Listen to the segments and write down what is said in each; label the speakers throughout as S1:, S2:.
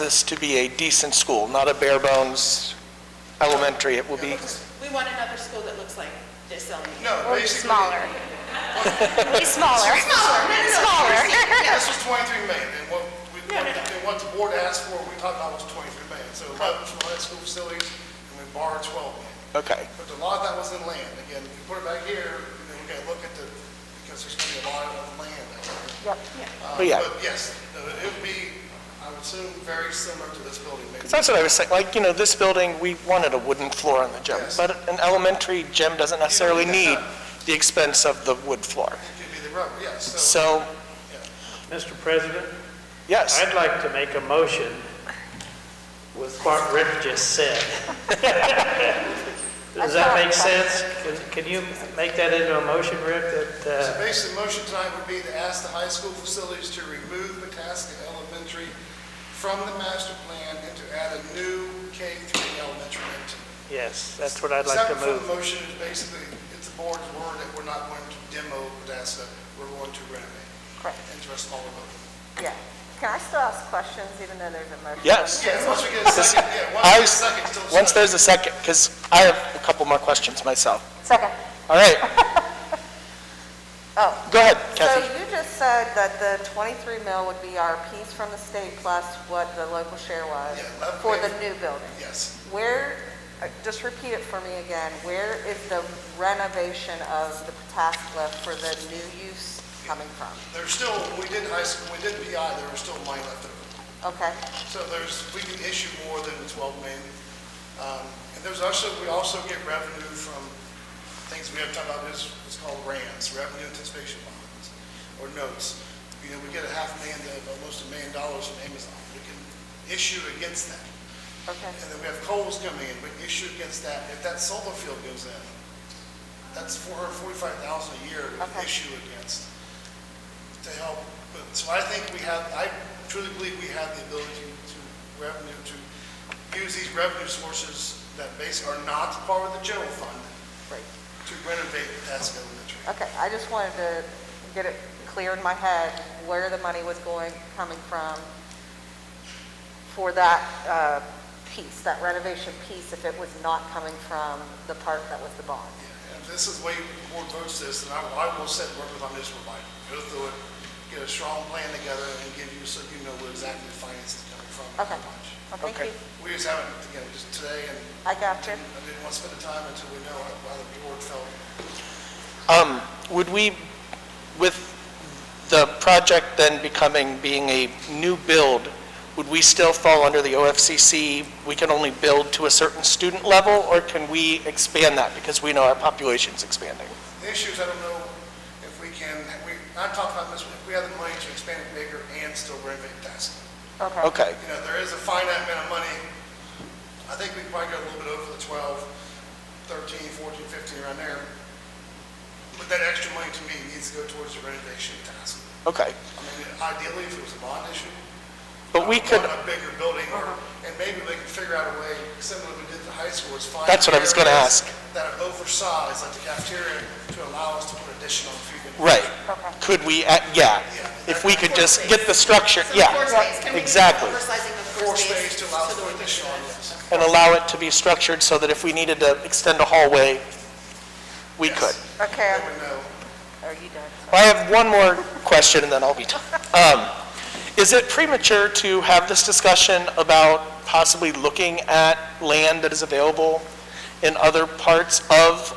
S1: this to be a decent school, not a bare bones elementary. It will be,
S2: We want another school that looks like this elementary.
S3: No,
S4: Or
S3: basically,
S4: smaller. Way smaller. Smaller.
S3: yeah, this was 23 million, and what, we-
S2: No, no, no.
S3: and what the board asked for, we talked about was 23 million. So 11 was from high school facilities, and we borrowed 12 million.
S1: okay.
S3: But a lot of that was in land. Again, if you put it back here, and then we gotta look at the, because there's gonna be a lot of land out there. Uh,
S1: But yeah.
S3: But yes, uh, it would be, I would assume, very similar to this building, maybe.
S1: That's what I was saying, like, you know, this building, we wanted a wooden floor in the gym,
S3: Yes.
S1: but an elementary gym doesn't necessarily need
S3: need that.
S1: the expense of the wood floor.
S3: It could be the rubber, yes, so.
S1: So,
S5: Mr. President,
S1: yes,
S5: I'd like to make a motion with what Rick just said. Does that make sense? Can- Can you make that into a motion, Rick,
S3: So
S5: that,
S3: basically, the motion tonight would be to ask the high school facilities to remove Potaska Elementary from the master plan and to add a new K-3 elementary into
S5: uh,
S3: it.
S5: yes, that's what I'd like to
S3: Separate from
S5: move.
S3: the motion is basically, it's the board's word that we're not going to demo Potaska, we're going to renovate
S6: Correct,
S3: into a smaller building.
S6: yeah. Can I still ask questions even though there's a motion?
S1: yes.
S3: Yeah, once we get a second, yeah, once we
S1: I
S3: get a
S1: was-
S3: second, still second.
S1: Once there's a second, because I have a couple more questions myself.
S6: Second.
S1: All right.
S6: Oh.
S1: Go ahead,
S6: So
S1: Kathy.
S6: you just said that the 23 mil would be our piece from the state plus what the local share was
S3: Yeah, eleven
S6: for the
S3: million.
S6: new building.
S3: Yes.
S6: Where, uh, just repeat it for me again, where is the renovation of the Pataskla for the new use coming from?
S3: There's still, we did high school, we did PI, there was still money left over.
S6: Okay,
S3: So there's, we can issue more than the 12 million. Um, And there's also, we also get revenue from things we have talked about, is it's called RANs, Revenue Anticipation Bonds, or notes. You know, we get a half million to almost a million dollars from Amazon. We can issue against that.
S6: okay.
S3: And then we have Coles coming in, we can issue against that. If that solar field goes in, that's 445,000 a year we can
S6: Okay.
S3: issue against to help. But, so I think we have, I truly believe we have the ability to revenue, to use these revenue sources that basically are not part of the general fund
S6: Great.
S3: to renovate Pataska Elementary.
S6: Okay, I just wanted to get it clear in my head where the money was going, coming from for that uh, piece, that renovation piece, if it was not coming from the part that was the bond.
S3: And if this is the way the board votes this, and I I will sit and work with my municipal provider, go through it, get a strong plan together and give you, so you know where exactly the finance is coming from. and how
S6: Okay.
S3: much.
S6: Well, Thank
S1: Okay.
S6: you.
S3: We just haven't, again, just today, and
S6: I got you.
S3: I didn't want to spend the time until we know how how the board felt.
S1: Um, Would we, with the project then becoming, being a new build, would we still fall under the OFCC, we can only build to a certain student level, or can we expand that because we know our population's expanding?
S3: The issue is, I don't know if we can, we, I talked about this, if we have the money to expand it bigger and still renovate Tassau.
S6: Okay.
S1: Okay,
S3: You know, there is a finite amount of money. I think we probably got a little bit over the 12, 13, 14, 15, around there. But that extra money to me needs to go towards the renovation task.
S1: okay.
S3: I mean, ideally, if it was a bond issue,
S1: But we could, Uh-huh.
S3: want a bigger building, or, and maybe we can figure out a way, similar to what we did at the high school, is find.
S1: That's what I was gonna
S3: areas
S1: ask.
S3: That are oversized, like the cafeteria, to allow us to put additional food. in.
S1: right,
S6: Okay.
S1: could we, uh, yeah, if we could just get the structure, yeah, exactly.
S3: Floor space to allow for additional, yes.
S1: And allow it to be structured so that if we needed to extend a hallway, we
S3: Yes.
S1: could.
S6: Okay,
S3: That would know.
S6: are you done?
S1: Well, I have one more question, and then I'll be done. Um, Is it premature to have this discussion about possibly looking at land that is available in other parts of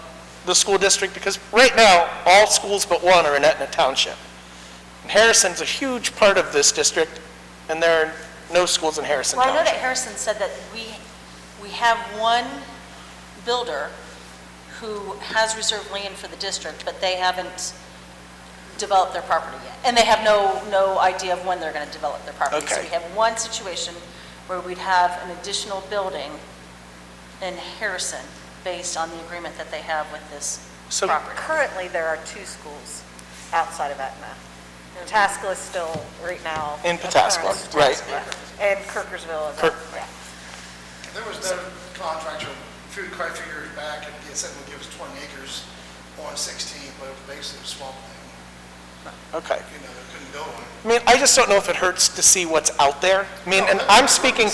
S1: the school district? Because right now, all schools but one are in Etna Township. And Harrison's a huge part of this district, and there are no schools in Harrison
S7: Well, I know that
S1: Township.
S7: Harrison said that we, we have one builder who has reserved land for the district, but they haven't developed their property yet. And they have no, no idea of when they're going to develop their property. So
S1: Okay.
S7: we have one situation where we'd have an additional building in Harrison based on the agreement that they have with this
S1: So-
S7: property.
S6: Currently, there are two schools outside of Etna. Pataskla is still, right now.
S1: In Pataskla,
S6: Pataskla.
S1: right.
S6: And Kirkersville is.
S1: Kirk-
S6: yeah.
S3: There was no contractor, few, quite a few years back, and he said would give us 20 acres on 16, but it was basically swamp land.
S1: Okay.
S3: you know, they couldn't build one.
S1: I mean, I just don't know if it hurts to see what's out there. I mean, and I'm speaking